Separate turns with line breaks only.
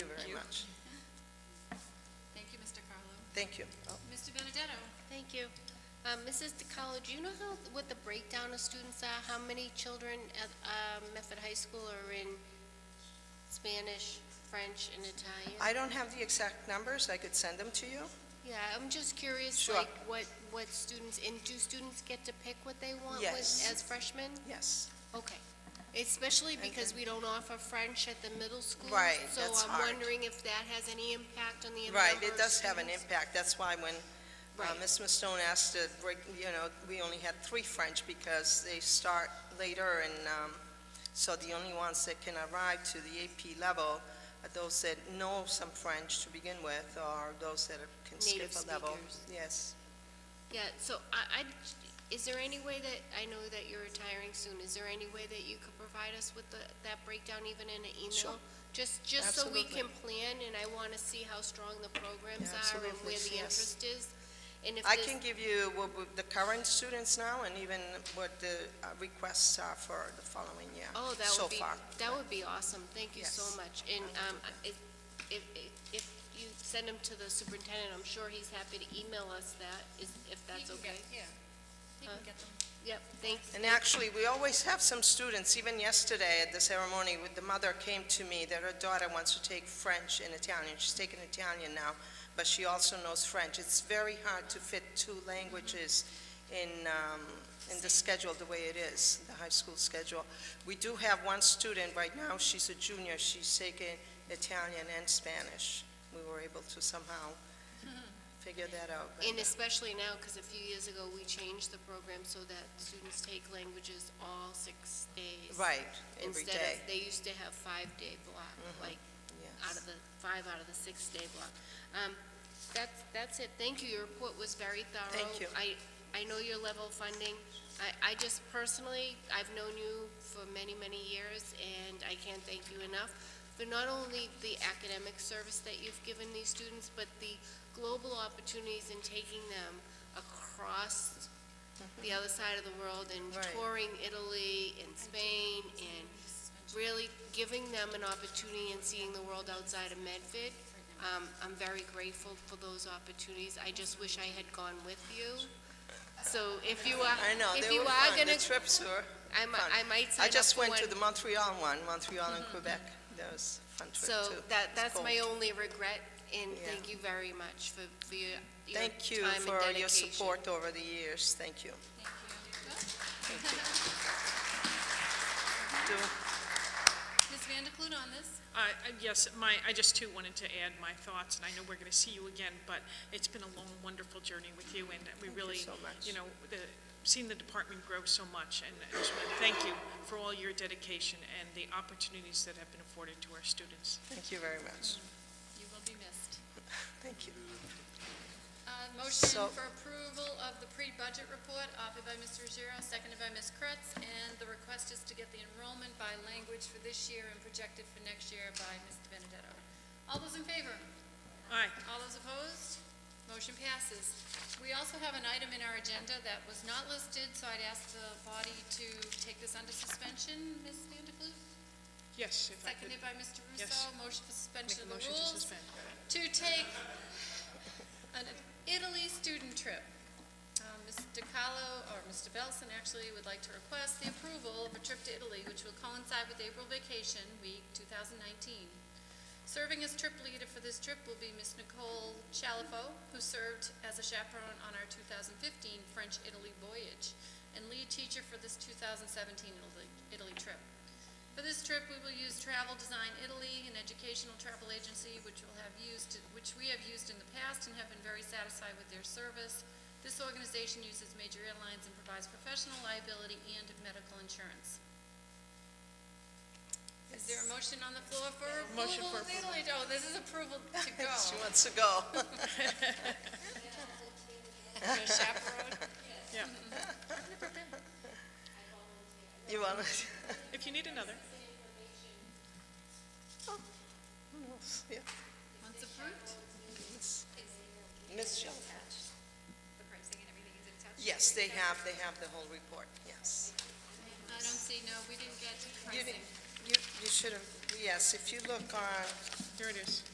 Thank you.
Mr. Benedetto?
Thank you. Um, Mrs. DeColo, do you know how, what the breakdown of students are? How many children at um, Medford High School are in Spanish, French, and Italian?
I don't have the exact numbers, I could send them to you.
Yeah, I'm just curious,
Sure.
like, what, what students, and do students get to pick what they want with-
Yes.
as freshmen?
Yes.
Okay. Especially because we don't offer French at the middle school.
Right, that's
So
hard.
I'm wondering if that has any impact on the number
Right, it
of
does have an
students.
impact, that's why when uh,
Right.
Ms. Mastone asked to break, you know, we only had three French because they start later and, um, so the only ones that can arrive to the AP level are those that know some French to begin with, or those that are- can skip
Native
a level.
speakers.
Yes.
Yeah, so I, I, is there any way that, I know that you're retiring soon, is there any way that you could provide us with the, that breakdown even in an email?
Sure.
Just, just so we
Absolutely.
can plan, and I wanna see how strong the programs
Yeah,
are and
absolutely,
where the
yes.
interest is. And if
I
there's-
can give you what we- the current students now and even what the uh, requests are for the following year.
Oh, that
so
would be,
far.
that would be awesome, thank you so
Yes.
much. And, um, if, if, if you send them to the superintendent, I'm sure he's happy to email us that, is, if that's
He can get-
okay.
Yeah. He
Huh?
can get them.
Yep, thanks.
And actually, we always have some students, even yesterday at the ceremony, with- the mother came to me that her daughter wants to take French and Italian. She's taking Italian now, but she also knows French. It's very hard to fit two languages in, um, in the schedule the way it is, the high school schedule. We do have one student right now, she's a junior, she's taking Italian and Spanish. We were able to somehow figure that out. but-
And especially now, because a few years ago, we changed the program so that students take languages all six days.
Right, every
Instead
day. Mm-hmm.
of, they used to have five-day block, like, out of the, five out of the six-day block. Um, That's, that's it. Thank you. Your report was very thorough.
Thank you.
I, I know your level of funding. I, I just personally, I've known you for many, many years, and I can't thank you enough for not only the academic service that you've given these students, but the global opportunities in taking them across the other side of the world and
Mm-hmm. Right.
touring Italy and Spain and really giving them an opportunity and seeing the world outside of Medford. Um, I'm very grateful for those opportunities. I just wish I had gone with you. So if you are,
I know,
if
they
you
were
are
fun,
gonna,
the trips were
I might,
fun.
I might sign
I
up
just
for
went to
one.
the
Mm-hmm.
Montreal one, Montreal and Quebec. That was a fun trip,
So
too.
that,
It's
that's
cold.
my only regret, and
Yeah.
thank you very much for, for your, your time and
Thank you
dedication.
for your support over the years. Thank you.
Thank you.
Do-
Ms. Van de Clude on this?
I- I- Yes, my, I just too wanted to add my thoughts, and I know we're going to see you again, but it's been a long, wonderful journey with you, and we
you
really,
so much.
you know, the- seen the department grow so much, and I just want to thank you for all your dedication and the opportunities that have been afforded to our students.
Thank you very much.
You will be missed.
Thank you.
Uh, Motion
So-
for approval of the pre-budget report offered by Mr. Ruggiero, seconded by Ms. Kretz, and the request is to get the enrollment by language for this year and projected for next year by Mr. Benedetto. All those in favor?
Aye.
All those opposed? Motion passes. We also have an item in our agenda that was not listed, so I'd ask the body to take this under suspension, Ms. Van de Clue?
Yes, if I could.
Seconded by Mr.
Yes.
Russo, motion
Make
for suspension
a
of the
motion to
rules
suspend.
to take an Italy student trip. Uh, Ms. DiCarlo, or Mr. Belson actually, would like to request the approval of a trip to Italy, which will coincide with April Vacation Week 2019. Serving as trip leader for this trip will be Ms. Nicole Chalifo, who served as a chaperone on our 2015 French-Italy voyage, and lead teacher for this 2017 Italy- Italy trip. For this trip, we will use Travel Design Italy, an educational travel agency which will have used, which we have used in the past and have been very satisfied with their service. This organization uses major airlines and provides professional liability and medical insurance. Is there a motion on the floor for
Motion
approval?
for
of Italy? No, this is approval to go.
She wants to go.
Your chaperone?
Yeah.
You want to?
If you need another.
Yeah.
Once approved?
Ms. Shelf.
the pricing and everything is attached?
Yes, they have, they have the whole report, yes.
I don't see, no, we didn't get
You didn't,
pricing.
you, you should have, yes, if you look on,
Here it is.